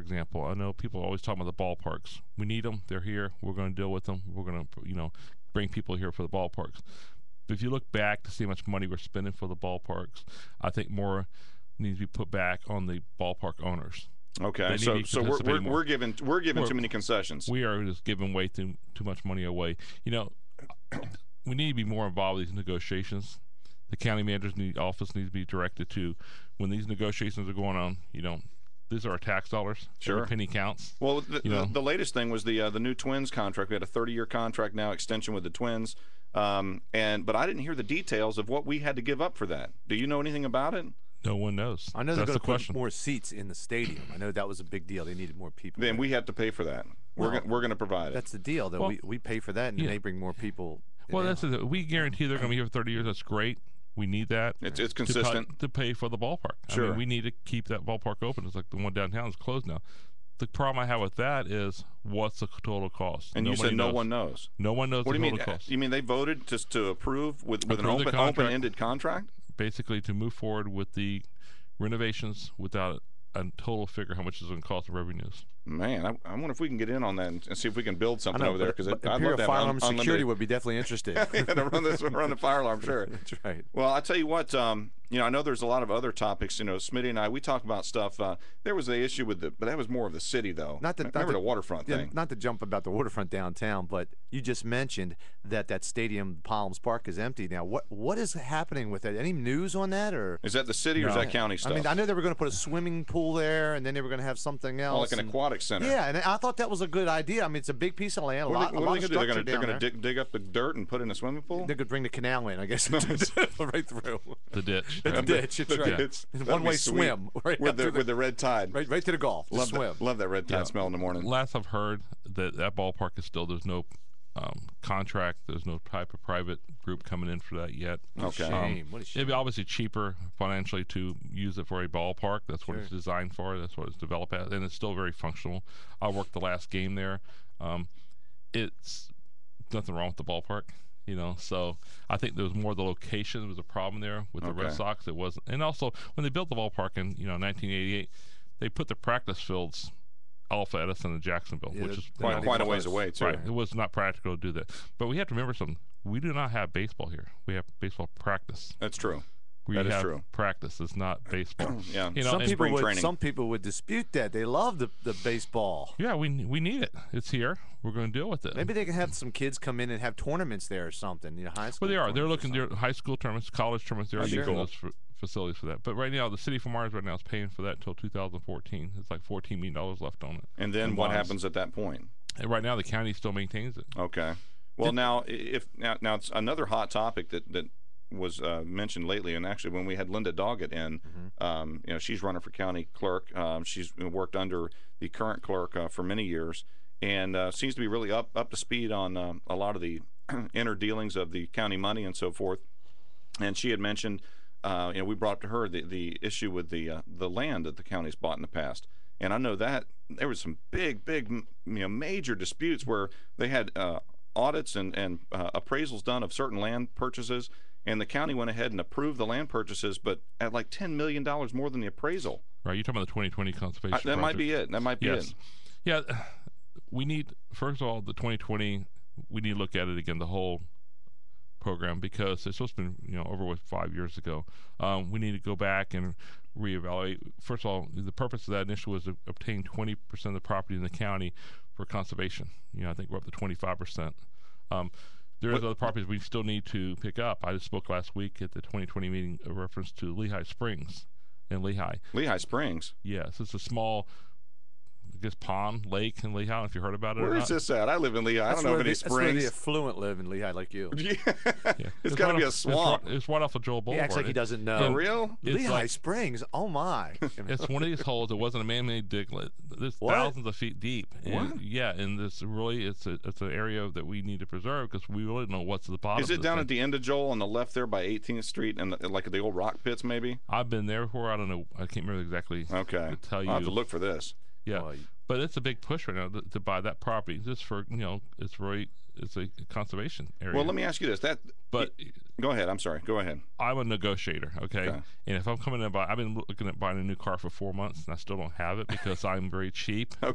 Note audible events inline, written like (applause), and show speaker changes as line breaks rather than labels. example, I know people always talk about the ballparks. We need them. They're here. We're going to deal with them. We're going to, you know, bring people here for the ballparks. But if you look back to see how much money we're spending for the ballparks, I think more needs to be put back on the ballpark owners.
Okay,
They
so
need to
so we're
participate
we're,
more.
we're giving we're giving
We're-
too many concessions.
We are just giving way too too much money away. You know, (coughs) we need to be more involved in these negotiations. The county manager's need, office needs to be directed to when these negotiations are going on. You know, these are our tax dollars.
Sure.
Every penny counts.
Well, the,
You
the,
know.
the latest thing was the uh, the new Twins contract. We had a 30 year contract now extension with the Twins, um, and but I didn't hear the details of what we had to give up for that. Do you know anything about it?
No one knows.
I know they're
That's
going
the
to put
question.
more seats in the stadium. I know that was a big deal. They needed more people.
Then we have to pay for that. we're
Well,
gonna, we're going to provide it.
that's the deal, though.
Well-
we, we pay for that, and then
Yeah.
they bring more people.
Well,
in.
that's it. We guarantee they're going to be here for 30 years. That's great. We need that.
It's it's
to cut-
consistent.
to, pay for the ballpark. I
Sure.
mean, we need to keep that ballpark open. It's like the one downtown is closed now. The problem I have with that is what's the total cost?
And you
Nobody
said no
knows.
one knows.
No one knows
What do
the
you mean?
total cost.
You mean they voted just to approve with, with an
Approve the
open
contract.
open ended contract?
Basically, to move forward with the renovations without a total figure how much is going to cost the revenues.
Man, I, I wonder if we can get in on that and, and see if we can build
I
something
know,
over there
but-
because
but
I'd love
Imperial
to have un-
Firearm Security
unlimited-
would be
(laughs)
definitely interested.
yeah, to run this run the fire alarm, sure.
That's right.
Well, I tell you what, um, you know, I know there's a lot of other topics. You know, Smitty and I, we talk about stuff. Uh, there was the issue with the, but that was more of the city though.
Not the-
M-
not
remember
the-
the waterfront
Yeah,
thing.
not to jump about the waterfront downtown, but you just mentioned that that stadium, Palms Park, is empty now. What what is happening with it? Any news on that, or
Is that the city or is
No.
that county stuff?
I mean, I know they were going to put a swimming pool there, and then they were going to have something
Oh,
else.
like an
and-
aquatic center.
yeah, and I thought that was a good idea. I mean, it's a big piece of land, a
What are
lot,
they,
a
what
lot
are
of
they gonna do? They're
structure
gonna they're
down
gonna
there.
dig dig up the dirt and put in a swimming pool. (laughs)
They could bring the canal in, I guess, (laughs) right through.
The
(laughs)
ditch.
It's
right?
ditch. It's
Look,
right.
it's- that'd be
One-way
sweet.
swim, (laughs) right
with
up
the
to the-
with the red tide.
Right, right to the golf. to
Love
swim.
that. Love that red tide smell in the morning.
Last I've heard that that ballpark is still there's no um, contract. There's no type of private group coming in for that yet.
Okay.
Shame. What a shame.
It'd be obviously cheaper financially to use it for a ballpark. That's what it's designed for. That's what it's developed at, and it's still very functional. I worked the last game there. Um, it's nothing wrong with the ballpark, you know. So I think there was more the location was a problem there with the Red
Okay.
Sox. It wasn't, and also when they built the ballpark in you know 1988, they put the practice fields off at us in Jacksonville,
Yeah,
which is
they're
you
Quite,
not
know,
quite a
even
ways
close.
away too.
Right. It was not practical to do that. But we have to remember something. We do not have baseball here. We have baseball practice.
That's true.
We
That is
have
true.
practice. It's not
(clears throat)
baseball.
Yeah.
You know,
some
and-
people
spring
would.
training.
Some people would dispute that. They love the, the baseball.
yeah, we we need it. It's here. We're going to deal with it.
Maybe they can have some kids come in and have tournaments there or something. You know, high school.
Well, they are. They're
tournaments or
looking. They're high school tournaments, college tournaments. They're
That'd be
using
cool.
those fa- facilities for that. But right now, the city from Mars right now is paying for that until 2014. It's like 14 million dollars left on it.
And then
And
what
bonds.
happens at that point?
And right now, the county still maintains it.
Okay. Well, now i- if now, now it's another hot topic that that was uh, mentioned lately, and actually when we had Linda Doggett in, um, you know, she's running for county clerk. Um, she's worked under the current clerk uh, for many years, and uh, seems to be really up up to speed on um a lot of the (clears throat) inner dealings of the county money and so forth. And she had mentioned, uh, you know, we brought up to her the, the issue with the uh, the land that the county's bought in the past. And I know that there was some big, big, m- you know, major disputes where they had uh, audits and and uh, appraisals done of certain land purchases, and the county went ahead and approved the land purchases, but at like ten million dollars more than the appraisal.
Right? You're talking about the 2020 conservation.
I- that might
project.
be it. That might be
Yes.
it.
Yeah, we need first of all the 2020. We need to look at it again, the whole program, because it's supposed to be you know over with five years ago. Um, we need to go back and reevaluate. First of all, the purpose of that initiative was to obtain 20% of the property in the county for conservation. You know, I think we're up to 25%. Um, there is other properties we still need to pick up. I just spoke last week at the 2020 meeting a reference to Lehigh Springs and Lehigh.
Lehigh Springs.
Yes, it's a small, I guess, pond, lake in Lehigh. I don't know If you heard about it, or
Where
not.
is this at? I live in Lehigh. I
That's
don't know
where
of any
the, That's where the
springs.
affluent live in Lehigh, like you.
(laughs)
Yeah.
Yeah.
it's got to
right
be
off-
a swamp.
It's right, it's right off of Joel
He
Boulevard.
acts like he
It-
doesn't
For
know.
real?
it's
Lehigh
like-
Springs. Oh my.
(laughs) It's one of these holes. It wasn't a man-made diglet. It's
What?
thousands of feet deep. And,
What?
Yeah, and this really, it's a, it's an area that we need to preserve because we really don't know what's at the bottom.
Is it
of
down
this
at the end of Joel on the left there by 18th Street and the, like the old rock pits maybe?
thing. I've been there before. I don't know. I can't remember exactly.
Okay.
To tell
I'll have to
you.
look for this.
Yeah.
Well,
But it's a big push right now to, to buy that property just for you know it's really it's a conservation area.
Well, let me ask you this. That
but
go ahead. I'm sorry. Go ahead.
I'm a negotiator, okay?
Okay.
And if I'm coming to buy, I've been looking at buying a new car for four months and I still don't have it because I'm very cheap.